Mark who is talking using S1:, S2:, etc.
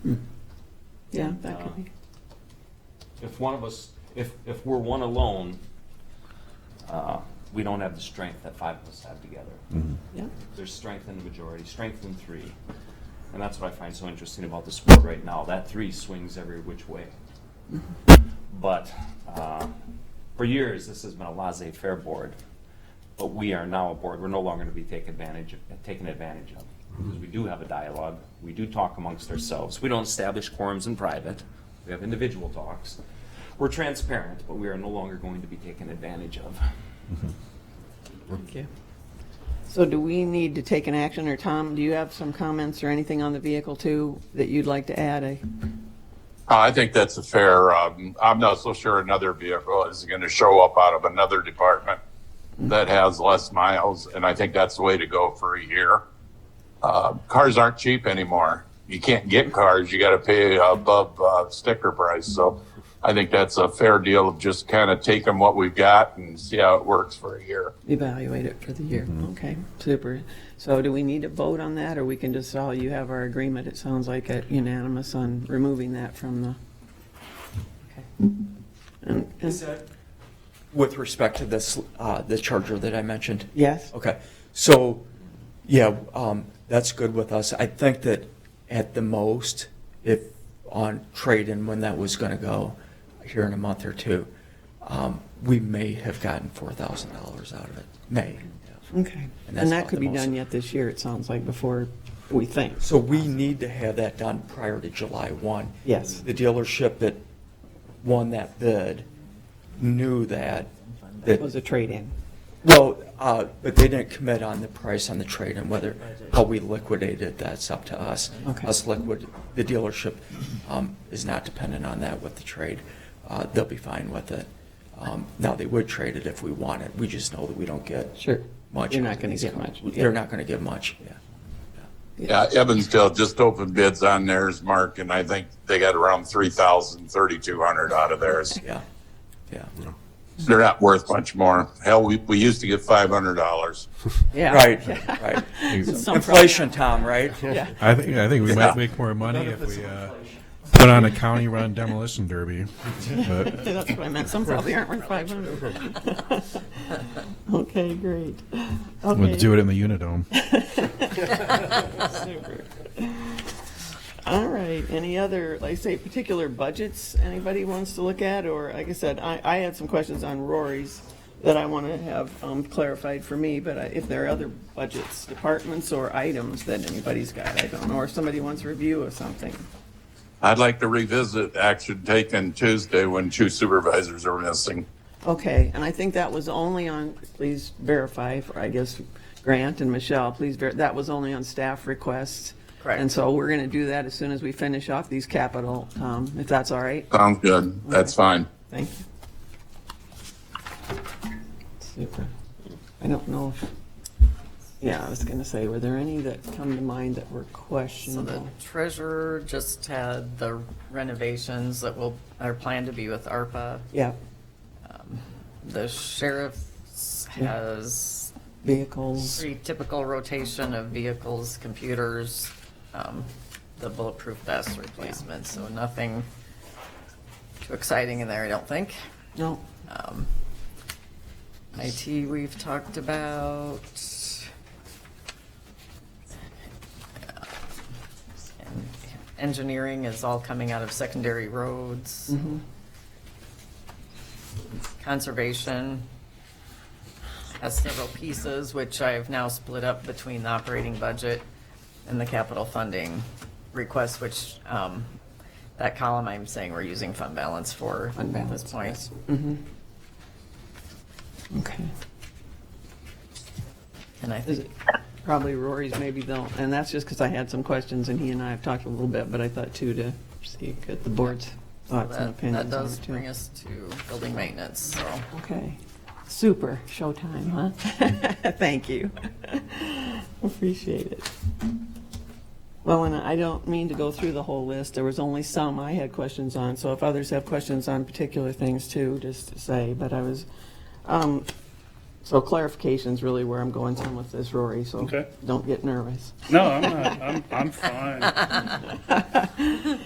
S1: Yeah, that could be.
S2: If one of us, if, if we're one alone, uh, we don't have the strength that five of us have together.
S1: Yeah.
S2: There's strength in the majority, strength in three. And that's what I find so interesting about the sport right now. That three swings every which way. But uh, for years, this has been a laissez-faire board. But we are now a board we're no longer going to be take advantage of, taken advantage of because we do have a dialogue. We do talk amongst ourselves. We don't establish quorums in private. We have individual talks. We're transparent, but we are no longer going to be taken advantage of.
S1: Thank you. So do we need to take an action, or Tom, do you have some comments or anything on the vehicle too that you'd like to add? I-
S3: Uh, I think that's a fair, um, I'm not so sure another vehicle is going to show up out of another department that has less miles, and I think that's the way to go for a year. Uh, cars aren't cheap anymore. You can't get cars, you got to pay above uh, sticker price, so I think that's a fair deal of just kind of taking what we've got and see how it works for a year.
S1: Evaluate it for the year. Okay, super. So do we need to vote on that, or we can just, all you have our agreement, it sounds like it unanimous on removing that from the? And- and-
S4: With respect to this, uh, the charger that I mentioned?
S1: Yes?
S4: Okay, so, yeah, um, that's good with us. I think that at the most, if on trade-in, when that was gonna go, here in a month or two, um, we may have gotten four thousand dollars out of it, may. have.
S1: Okay.
S4: And that's
S1: And that
S4: about
S1: could
S4: the
S1: be
S4: most-
S1: done yet this year, it sounds like, before we think.
S4: So we need to have that done prior to July one.
S1: Yes.
S4: The dealership that won that bid knew that, that
S1: It was a trade-in.
S4: Well, uh, but they didn't commit on the price on the trade and whether, how we liquidated, that's up to us.
S1: Okay.
S4: Us liquid, the dealership um, is not dependent on that with the trade. Uh, They'll be fine with it. Um, Now, they would trade it if we want it, we just know that we don't get.
S1: Sure.
S4: Much.
S1: You're not
S4: out of
S1: gonna
S4: these
S1: get
S4: cars.
S1: much, yeah.
S4: They're not going to get much, yeah.
S3: Yeah, Evansdale just opened bids on theirs, Mark, and I think they got around 3,000, 3,200 out of theirs.
S4: Yeah, yeah.
S3: They're not worth much more. Hell, we, we used to get five hundred dollars.
S1: Yeah.
S4: Right, right.
S1: Some-
S4: Inflation, Tom, right?
S5: I think, I think we might make more money if we uh, put on a county-run demolition derby. But
S1: That's what I meant, some probably aren't worth 500. Okay, great.
S5: we'll
S1: Okay,
S5: do it in the Unidome.
S1: super. All right, any other, like say, particular budgets anybody wants to look at? Or, like I said, I, I had some questions on Rory's that I want to have um, clarified for me, but I- if there are other budgets, departments, or items that anybody's got, I don't know, or if somebody wants a review of something.
S3: I'd like to revisit action taken Tuesday when two supervisors are missing.
S1: Okay, and I think that was only on, please verify, for I guess, Grant and Michelle, please, ver- that was only on staff requests.
S4: Correct.
S1: And so we're going to do that as soon as we finish off these capital, um, if that's all right.
S3: Sounds good. That's fine.
S1: Thank you. Super. I don't know if, yeah, I was going to say, were there any that come to mind that were
S6: So the
S1: questionable?
S6: treasurer just had the renovations that will, are planned to be with ARPA.
S1: Yeah,
S6: The sheriff has
S1: vehicles,
S6: pretty typical rotation of vehicles, computers, um, the bulletproof vest replacement, so nothing too exciting in there, I don't think.
S1: no,
S6: Um, IT, we've talked about. And Engineering is all coming out of secondary roads.
S1: Mm-hmm.
S6: Conservation has several pieces, which I have now split up between the operating budget and the capital funding request, which, um, that column I'm saying we're using fund balance for
S1: Fund
S6: at this
S1: balance,
S6: point.
S1: okay.
S6: And I
S1: Is
S6: think
S1: it probably Rory's maybe though, and that's just because I had some questions and he and I have talked a little bit, but I thought too to see get the board's thoughts and
S6: that, that
S1: opinions on
S6: does
S1: it
S6: bring
S1: too.
S6: us to building maintenance, so.
S1: Okay, super, showtime, huh? Thank you. Appreciate it. Well, and I don't mean to go through the whole list, there was only some I had questions on, so if others have questions on particular things too, just to say, but I was, um, so clarification's really where I'm going some with this, Rory, so
S7: Okay.
S1: don't get nervous.
S7: No, I'm not. I'm, I'm fine.